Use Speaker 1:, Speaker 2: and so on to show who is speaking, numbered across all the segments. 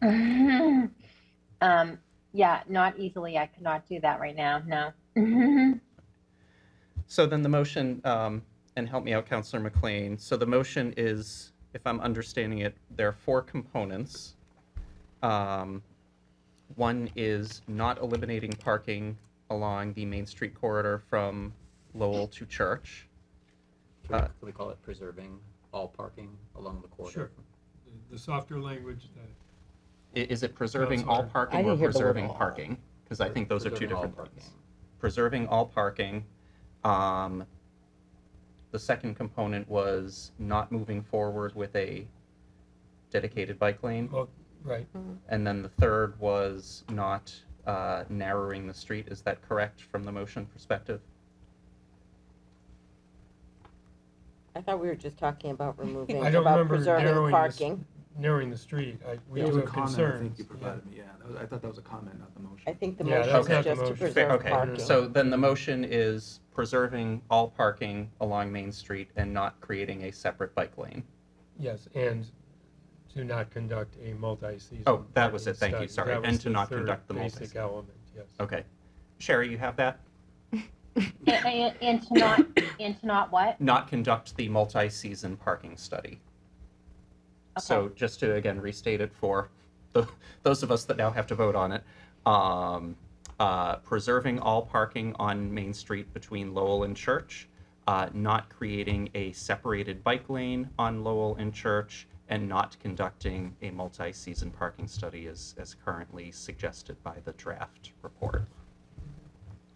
Speaker 1: um, yeah, not easily. I cannot do that right now. No.
Speaker 2: So then the motion, um, and help me out, Counselor McLean. So the motion is, if I'm understanding it, there are four components. Um, One is not eliminating parking along the Main Street corridor from Lowell to Church.
Speaker 3: Can we,
Speaker 2: Uh,
Speaker 3: can we call it preserving all parking along the corridor?
Speaker 4: Sure. The- The softer language that,
Speaker 2: I- Is it preserving all
Speaker 4: Counselor.
Speaker 2: parking
Speaker 5: Oh, I
Speaker 2: or
Speaker 5: didn't hear the word
Speaker 2: preserving
Speaker 5: all.
Speaker 2: parking? Because I think those are two
Speaker 3: Preserving all
Speaker 2: different things.
Speaker 3: parking.
Speaker 2: preserving all parking. Um, the second component was not moving forward with a dedicated bike lane.
Speaker 4: well, right,
Speaker 5: Mm,
Speaker 2: And then the third was not uh, narrowing the street. Is that correct from the motion perspective?
Speaker 5: I thought we were just talking about removing,
Speaker 4: I don't
Speaker 5: about
Speaker 4: remember
Speaker 5: preserving
Speaker 4: narrowing this-
Speaker 5: parking.
Speaker 4: narrowing the street, I, we
Speaker 6: That was
Speaker 4: do have
Speaker 6: a comment, I
Speaker 4: concerns.
Speaker 6: think you provided me, yeah. That was- I thought that was a comment, not the motion.
Speaker 5: I think the
Speaker 4: Yeah,
Speaker 5: motion
Speaker 4: that's
Speaker 5: is
Speaker 2: not
Speaker 4: the
Speaker 5: just to
Speaker 4: motion.
Speaker 2: Fair-
Speaker 5: preserve
Speaker 2: Okay,
Speaker 5: parking.
Speaker 2: so then the motion is preserving all parking along Main Street and not creating a separate bike lane.
Speaker 4: Yes, and to not conduct a multi-season.
Speaker 2: Oh, that was
Speaker 4: parking
Speaker 2: it. Thank you.
Speaker 4: study.
Speaker 2: Sorry.
Speaker 4: That
Speaker 2: And
Speaker 4: was
Speaker 2: to not
Speaker 4: third
Speaker 2: conduct the
Speaker 4: Basic
Speaker 2: multi-season.
Speaker 4: element, yes.
Speaker 2: Okay. Sherry, you have that?
Speaker 1: and, and, and to not, and to not what?
Speaker 2: not conduct the multi-season parking study. So just to again restate it for the, those of us that now have to vote on it, um, uh, preserving all parking on Main Street between Lowell and Church, uh, not creating a separated bike lane on Lowell and Church, and not conducting a multi-season parking study as, as currently suggested by the draft report.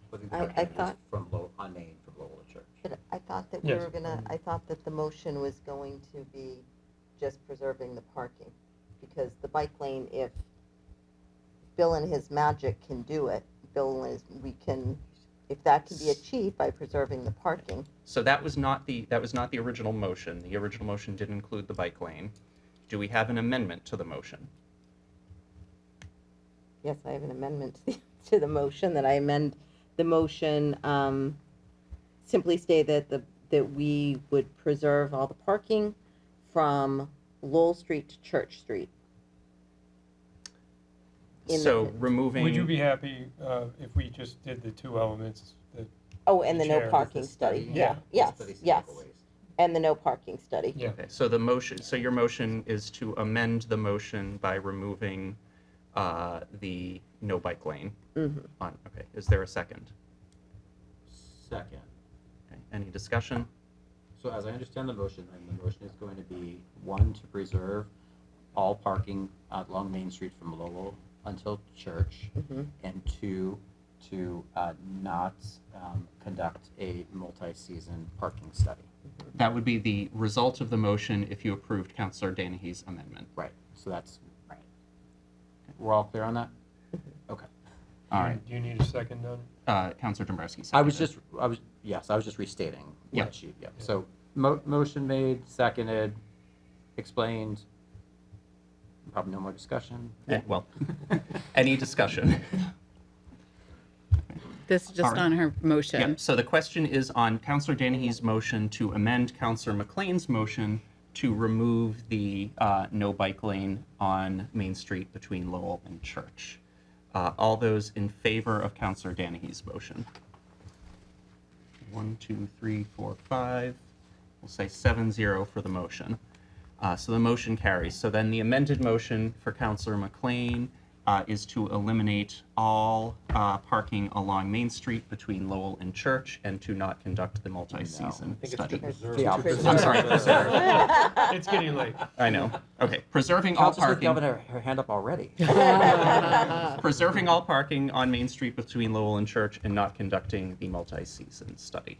Speaker 3: With
Speaker 5: I- I
Speaker 3: parking just
Speaker 5: thought-
Speaker 3: From Lowell, on Main, from Lowell to Church.
Speaker 5: But I thought that we
Speaker 4: Yes.
Speaker 5: were gonna, I thought that the motion was going to be just preserving the parking. Because the bike lane, if Bill and his magic can do it, Bill and his, we can, if that can be achieved by preserving the parking,
Speaker 2: So that was not the, that was not the original motion. The original motion did include the bike lane. Do we have an amendment to the motion?
Speaker 5: Yes, I have an amendment to the- to the motion, that I amend the motion, um, simply say that the, that we would preserve all the parking from Lowell Street to Church Street. In the-
Speaker 2: So removing.
Speaker 4: Would you be happy, uh, if we just did the two elements, the
Speaker 5: Oh, and the no
Speaker 4: Chair,
Speaker 5: parking study, yeah, yes,
Speaker 3: Study some
Speaker 5: yes,
Speaker 3: different ways.
Speaker 5: and the no parking study.
Speaker 4: Yeah.
Speaker 2: Okay, so the motion, so your motion is to amend the motion by removing uh, the no bike lane
Speaker 5: Mhm.
Speaker 2: on, okay, is there a second?
Speaker 3: Second,
Speaker 2: Okay, Any discussion?
Speaker 3: so as I understand the motion, then the motion is going to be, one, to preserve all parking along Main Street from Lowell until Church,
Speaker 5: Mhm.
Speaker 3: and two, to uh, not um, conduct a multi-season parking study.
Speaker 2: That would be the result of the motion if you approved Counselor Danahy's amendment.
Speaker 3: Right, so that's, right. We're all clear on that? Okay.
Speaker 2: All right,
Speaker 4: Do you need a second on it?
Speaker 2: uh, Counselor Dombrowski
Speaker 3: I was
Speaker 2: seconded.
Speaker 3: just, I was, yes, I was just restating
Speaker 2: Yeah.
Speaker 3: what she, yeah. So mo- motion made, seconded, explained. Probably no more discussion.
Speaker 2: Yeah, well, any discussion?
Speaker 7: This is just
Speaker 2: Alright.
Speaker 7: on her
Speaker 2: Yeah,
Speaker 7: motion.
Speaker 2: so the question is on Counselor Danahy's motion to amend Counselor McLean's motion to remove the uh, no bike lane on Main Street between Lowell and Church. Uh, All those in favor of Counselor Danahy's motion? One, two, three, four, five. We'll say seven zero for the motion. Uh, so the motion carries. So then the amended motion for Counselor McLean uh, is to eliminate all uh, parking along Main Street between Lowell and Church and to not conduct the multi-season study.
Speaker 3: The opposite.
Speaker 2: I'm sorry,
Speaker 4: It's getting late.
Speaker 2: I know. Okay, preserving all
Speaker 3: Councilor
Speaker 2: parking.
Speaker 3: Galvin had her hand up already.
Speaker 2: preserving all parking on Main Street between Lowell and Church and not conducting the multi-season study.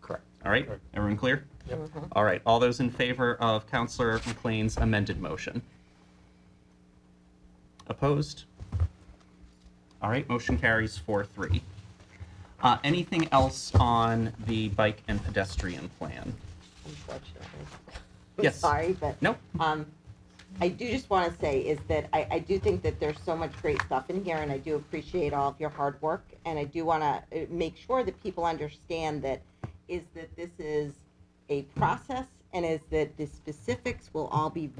Speaker 3: Correct.
Speaker 2: All right, everyone clear?
Speaker 4: Yep.
Speaker 2: All right, all those in favor of Counselor McLean's amended motion? Opposed? All right, motion carries four three. Uh, anything else on the bike and pedestrian plan?
Speaker 5: unfortunately.
Speaker 2: Yes.
Speaker 5: I'm sorry, but.
Speaker 2: No.
Speaker 5: Um, I do just want to say is that I, I do think that there's so much great stuff in here and I do appreciate all of your hard work. And I do want to make sure that people understand that is that this is a process and is that the specifics will all be